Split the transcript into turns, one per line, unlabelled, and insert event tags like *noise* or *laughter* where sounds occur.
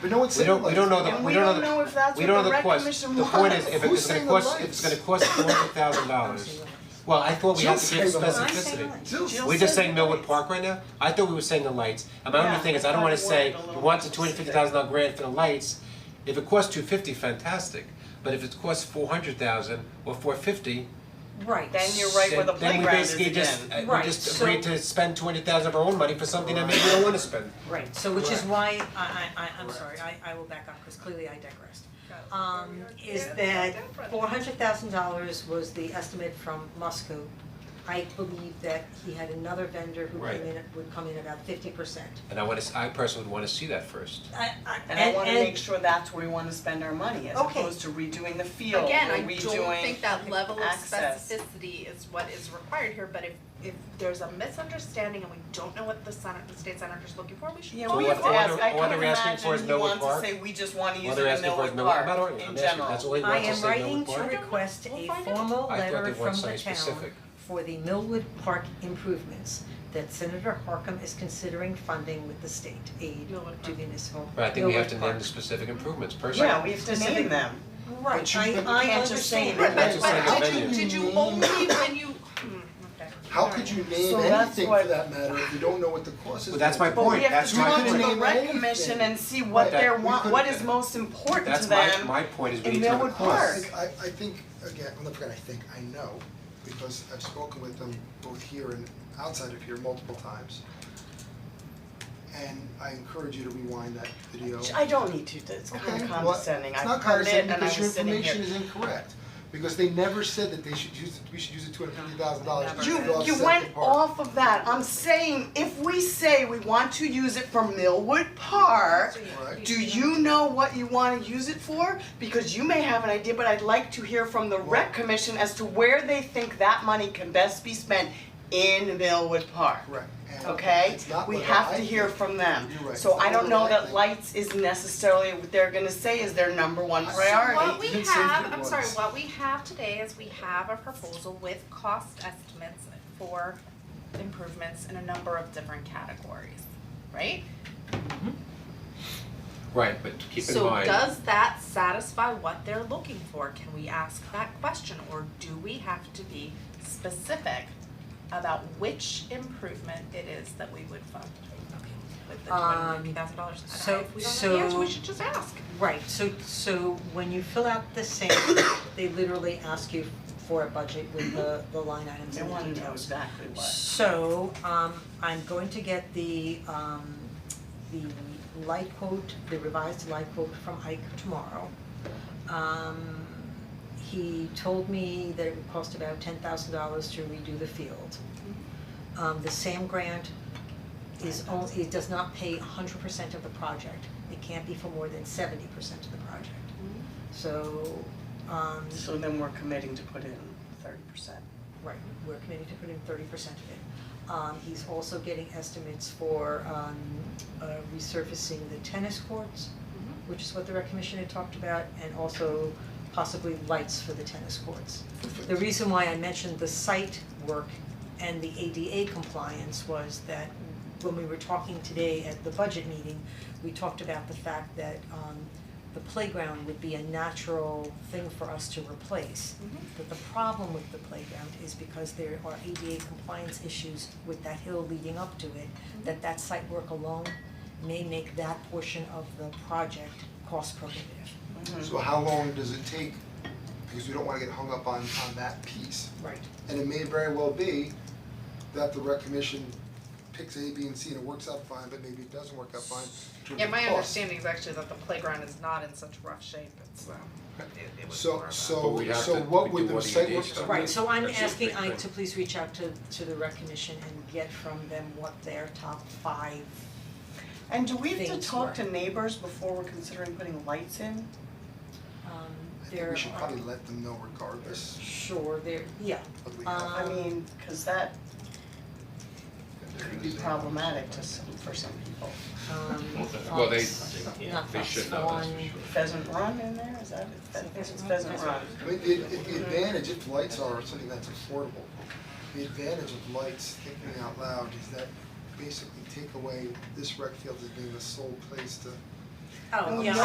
But no one
We
said it
don't, we
like
don't
that.
know the, we
And we
don't know
don't
the,
know if that's
we
what
don't know
the
the
rec
cost,
commission
the point is,
wants.
if
Who's
it's gonna
saying the
cost, if it's
lights?
gonna cost four hundred thousand dollars, well, I thought we had
Jill's
to give
saying the lights.
specificity.
Jill's-
We're just saying Millwood Park right now, I thought we were saying the lights, and my only
Yeah.
thing is, I don't wanna say, we want the two hundred fifty thousand dollar grant for the lights, if it costs two fifty, fantastic, but if it costs four hundred thousand or four fifty,
Right,
Then you're right where the
then we
playground is
basically
again.
just, uh, we
Right,
just
so-
agreed to spend two hundred thousand of our own money for something that maybe we don't wanna spend.
right, so which is
Correct.
why, I I I I'm sorry, I I will back up, cause clearly I digressed. Um is
Yeah,
that
different.
four hundred thousand dollars was the estimate from Musco. I believe that he had another vendor who
Right.
came in, at- would come in about fifty percent.
And I wanna, s- I personally would wanna see that first.
I I
And I wanna
and-
make sure that's where we wanna spend our money, as
Okay.
opposed to redoing the field,
Again,
or
I don't
redoing
think that level of
access.
specificity is what is required here, but if if there's a misunderstanding and we don't know what the center, the state senator is looking for, we should.
Yeah,
So
we
what
have to
they're-
ask, I
what
couldn't
they're asking for is
imagine he
Millwood
wants to
Park.
say, we just wanna use
Well,
it
they're
in
asking for
Millwood
his Millwood,
Park,
I'm not arguing,
in
I'm asking, that's all
general.
he
I
wants to
am
say,
writing
Millwood
to
Park.
request
We'll
a
find out.
formal
I thought
letter
they want
from the
something
town
specific.
for the Millwood Park improvements that Senator Harkam is considering funding with the state aid
Millwood
to
Park.
municipal Millwood Park.
But I think we have to name the specific improvements personally.
Yeah, we have to name them.
Right,
But you-
I I
but
understand.
you can't just say it.
But
That's just
but
like a
but did you,
venue.
did you only when you, hmm, okay.
How could you name
So that's
anything
why-
for that matter if you don't know what the cost is?
Well, that's my
gonna be?
point. that's my
But we have to
point.
talk to the rec
Anything.
commission and see what
That
they're
we
want,
could've
what is
done.
most important to
That's
them.
my, my point is we
in
need to know the
Millwood
I
cost.
think, I, I think, again, I'm not forget, I think, I know, because I've spoken with them both here and outside of here multiple times. And I encourage you to rewind that video.
I don't need to, it's kind
Okay,
of
well,
condescending,
it's not
I've heard it
condescending
and I
because your
was sitting
information
here. *laughs*
is incorrect, because they never said that they should use, we should use the two hundred fifty thousand dollars to offset the
You,
park.
you went off of that, I'm saying, if we say we want to use it for Millwood Park,
Right.
do you know what you wanna use it for? Because you may have an idea, but I'd like to hear from the rec commission as to where they think that money can best be spent in Millwood Park.
Correct, and
okay?
it's not
We
what
have
I
to hear
think.
from them.
You're right.
So
It's
I
not
don't
what
know
I
that
think.
lights is necessarily what they're gonna say is their number one
I-
priority.
What we
Didn't say if
have,
it
I'm sorry,
was.
what we have today is we have a proposal with cost estimates for improvements in a number of different categories, right?
Right, but keep in
So
mind,
does that satisfy what they're looking for? Can we ask that question or do we have to be specific about which improvement it is that we would fund with the two hundred fifty thousand dollars?
Um, so-
If we don't know the answer, we
so-
should just ask.
Right, so so when you fill out the same, they literally ask you for a budget with the the line items
They
and the
wanna
details.
know exactly what.
So, um, I'm going to get the, um, the light quote, the revised light quote from Ike tomorrow. Um, he told me that it would cost about ten thousand dollars to redo the field. Um, the SAM grant is only, it does not pay hundred percent of the project, it can't be for more than seventy percent of the project. So, um,
So then we're committing to put in thirty percent.
Right, we're committing to put in thirty percent of it. Um, he's also getting estimates for, um, uh, resurfacing the tennis courts, which is what the rec commission had talked about, and also possibly lights for the tennis courts. The reason why I mentioned the site work and the ADA compliance was that when we were talking today at the budget meeting, we talked about the fact that, um, the playground would be a natural thing for us to replace. But the problem with the playground is because there are ADA compliance issues with that hill leading up to it, that that site work alone may make that portion of the project cost prohibitive.
Mm-hmm. So how long does it take, because we don't wanna get hung up on, on that piece.
Right.
And it may very well be that the rec commission picks A, B, and C and it works out fine, but maybe it doesn't work out fine in terms
Yeah,
of
my
cost.
understanding is actually that the playground is not in such rough shape, it's um, it it was more
So,
of
so,
But
a-
we'd have
so
to-
what
we
would
do
the
all the
site
ADA
work?
stuff.
Right, so I'm
That's just
asking
big
Ike
thing.
to please reach out to to the rec commission and get from them what their top five
And do we have to
things
talk
were.
to neighbors before we're considering putting lights in?
um
I
their
think we should probably let them know regardless
Sure, their, yeah,
of we have.
I
Um,
mean, cause that could be problematic to some, for some people.
um
Well, they-
Fox- not
they
Fox,
should know, that's for
Swan.
sure.
Pheasant Run in there, is that, it? I think it's Pheasant Run.
I mean, the, the- the advantage, if lights are something that's affordable, the advantage of lights, thinking out loud, is that basically take away this rec field as being the sole place to
Oh,
No,
yeah.